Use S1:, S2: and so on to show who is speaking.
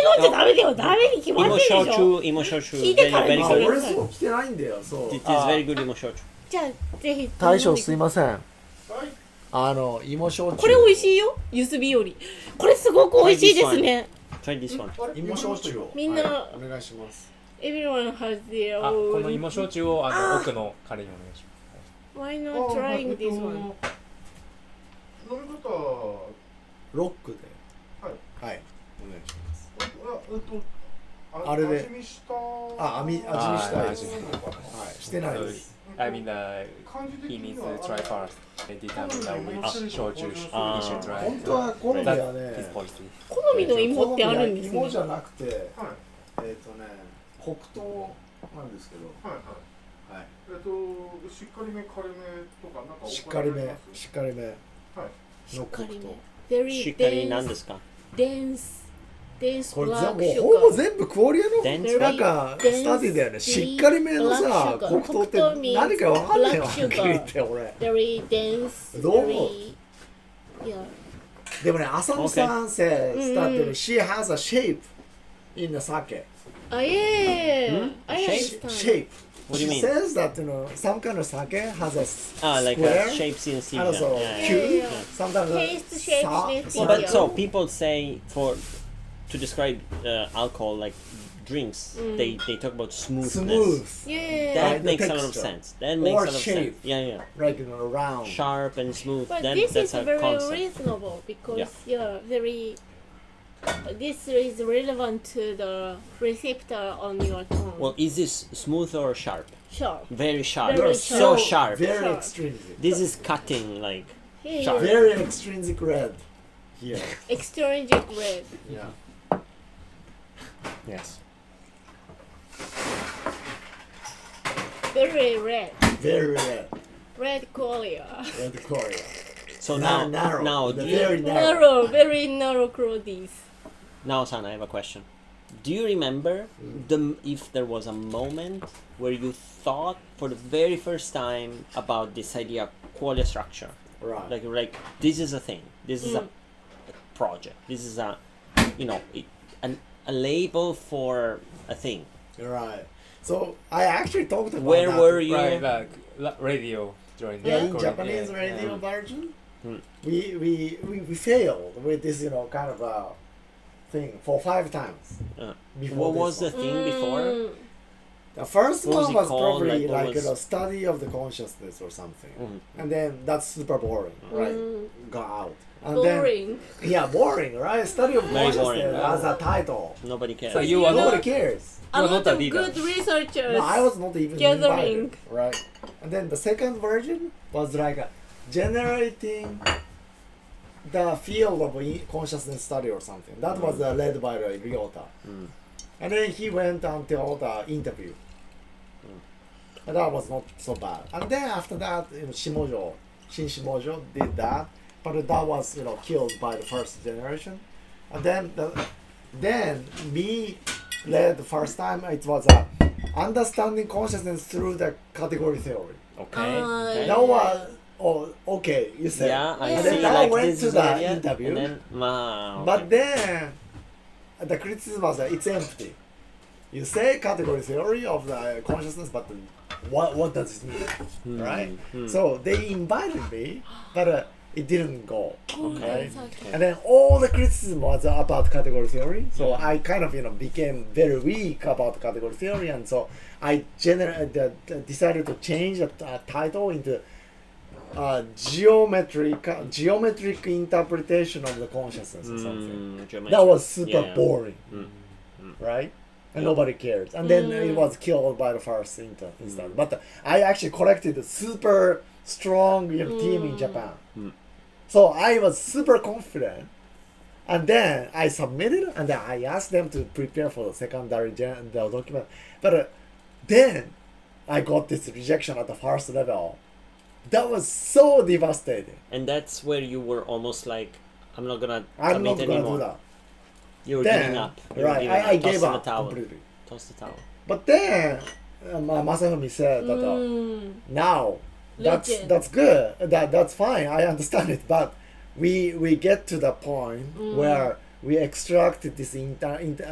S1: んじゃダメだよダメに決まってるでしょ
S2: Imoshochu, Imoshochu.
S1: 聞いてから
S2: Very
S1: に
S3: あ
S1: する
S2: good.
S3: 俺そう来てないんだよそう
S2: It is
S1: Ah.
S2: very good Imoshochu.
S1: じゃあぜひ
S4: 大将すいません
S3: はい
S4: あの芋焼酎
S1: これ美味しいよゆすびよりこれすごく美味しいですね
S2: Try this one.
S3: あれ
S4: 芋焼酎を
S1: みんな
S3: はいお願いします
S1: エビロンハズデ
S5: あこの芋焼酎をあの奥の彼にお願いしま
S1: Why not
S3: あ
S1: trying
S3: えっと
S1: this one?
S3: 飲み方は
S4: ロックで
S3: はい
S4: はい、お願いします
S3: えっと
S4: あれで
S3: 味見した
S4: あ網味見したいです
S3: あ味見
S4: はいしてないです
S5: す。I mean, uh,
S3: 感じ的
S5: he
S3: に
S5: needs
S3: は
S5: to try first. They determine that which 焼酎 he
S2: Ah.
S5: should try.
S4: 本当は好みは
S5: That's
S4: ね
S5: his policy.
S1: 好みの芋ってあるんです
S4: 芋
S1: ね
S4: じゃなくてえっ
S3: はい
S4: とね黒糖なんですけど
S3: はいはい
S4: はい
S3: えっとしっかりめカレめとかなんか
S4: しっかりめしっかりめ
S1: しっかり
S4: の
S1: ね Very
S2: しっかりなん
S1: dense
S2: ですか
S1: dense dense
S4: これ
S1: black
S4: ぜ
S1: sugar
S4: もうほぼ全部クオリアの
S2: Dense
S4: なんかスタディだよねしっかりめのさ黒糖って何かわかんないよはっきり言って俺
S1: very dense
S4: どう
S1: very yeah
S4: でもね浅野さんせスタデ
S1: うんう
S4: ィ
S1: ん
S4: She has a shape in the sake
S1: あいえ
S2: ん
S1: I
S2: Shape?
S1: understand
S4: shape
S2: What do
S4: She
S2: you mean?
S4: says that you know some kind of sake has a
S2: Ah, like
S4: square
S2: a shapes in
S4: and also
S2: Caesar. Yeah, yeah.
S4: cube
S1: yeah.
S4: sometimes
S1: Taste shape
S4: sa-
S1: with
S4: sa-
S2: Well,
S1: Yeah.
S2: but so people say for to describe uh, alcohol like drinks,
S1: Mm.
S2: they they talk about smoothness.
S4: smooth
S1: yeah
S2: That
S4: Like the
S2: makes a lot of
S4: texture.
S2: sense. That makes
S4: Or
S2: a lot of sense.
S4: shape. Oh.
S2: Yeah, yeah.
S4: like you know round
S2: Sharp and smooth.
S1: But
S2: That,
S1: this is
S2: that's a
S1: very
S2: concept.
S1: reasonable because yeah. very. This is relevant to the receptor on your tongue.
S2: Well, is this smooth or sharp?
S1: sure.
S2: Very sharp.
S1: Very
S2: so
S1: sharp.
S2: sharp.
S4: very
S1: Sharp.
S4: extrinsic
S2: This is cutting like
S1: Hey,
S2: Sharp.
S4: very extrinsic red here
S1: extrinsic red.
S4: yeah yes
S1: Very red.
S4: very red
S1: Red qualia.
S4: red Korea
S2: so now
S4: Nar- narrow
S2: now
S4: the
S2: do you-
S4: very narrow
S1: Narrow, very narrow clothes.
S2: Now, San, I have a question. Do you remember the if there was a moment where you thought for the very first time about this idea of qualia structure?
S4: right
S2: Like, like this is a thing. This is a,
S4: Mm.
S2: a project. This is a, you know, it, an, a label for a thing.
S4: right so I actually talked about
S2: Where
S4: that.
S2: were you?
S5: Right, like la- radio during the
S4: Yeah, in
S5: Korean-
S4: Japanese
S5: yeah,
S4: radio
S5: yeah.
S4: version,
S2: Hmm.
S4: we, we we we failed with this you know kind of uh, thing for five times.
S2: Uh,
S4: before
S2: What
S4: this
S2: was the
S4: one.
S2: thing before?
S1: Mm.
S4: the first
S2: what was
S4: one
S2: it
S4: was
S2: called?
S4: probably
S2: Like, what
S4: like,
S2: was-
S4: you know study of the consciousness or something,
S2: Mhm.
S5: Mm-hmm.
S4: and then that's super boring,
S2: Hmm.
S4: right?
S1: Mm.
S4: Got out. And
S1: Boring.
S4: Then, yeah, boring, right? Study of
S2: Very boring.
S4: consciousness as a title.
S2: Nobody cares.
S5: So you
S1: You
S5: are
S1: know-
S4: Nobody
S5: not.
S4: cares.
S1: A
S5: You are
S1: lot
S5: not a
S1: of
S5: leader.
S1: good researchers.
S4: No, I was not even
S1: gathering.
S4: invited, right? And then the second version was like a generating the field of i- consciousness study or something. That was uh, led by uh, Ryota.
S2: Mm.
S4: And then he went until the interview. And that was not so bad. And then after that, you know, Shimojo, Shin Shimojo did that, but that was you know killed by the first generation. And then the, then me led the first time. It was a understanding consciousness through the category theory.
S2: Okay.
S1: Uh,
S2: okay.
S4: That was oh okay. You said
S2: Yeah, I
S1: Yeah.
S2: see.
S1: And then
S4: I
S2: like
S4: went
S2: this
S4: to
S2: is
S4: the
S2: an idea,
S4: interview.
S2: And then, wow.
S4: But then the criticism was that it's empty. You say category theory of the consciousness, but what what does it mean,
S2: Hmm.
S4: right? So they invited me, but uh, it didn't go. Okay.
S1: Okay.
S4: And then all the criticism was about category theory, so I kind of you know became very weak about category theory, and so I gener- uh, the, the- decided to change the uh, title into uh, geometric geometric interpretation of the consciousness
S2: hmm, Mm,
S4: or something. That was super boring, right? And nobody cared. And then it was killed by the first inter-
S2: Mm.
S4: instead. But uh, I actually collected a super strong you know, team in Japan.
S2: Mm.
S4: So I was super confident. And then I submitted, and then I asked them to prepare for the secondary gen- the document. But uh, then I got this rejection at the first level. That was so devastating.
S2: And that's where you were almost like, I'm not gonna
S4: I'm
S2: commit
S4: not gonna
S2: anymore.
S4: do that.
S2: You were
S4: Then,
S2: giving up. You were
S4: right?
S2: giving
S4: I, I
S2: up. Toss
S4: gave
S2: in
S4: up
S2: the towel.
S4: completely.
S2: Toss the towel.
S4: But then uh, Ma- Masafumi said that uh,
S1: Mm.
S4: now that's
S1: Legend.
S4: that's good. That that's fine. I understand it. But we we get to the point where we extracted this inter, inter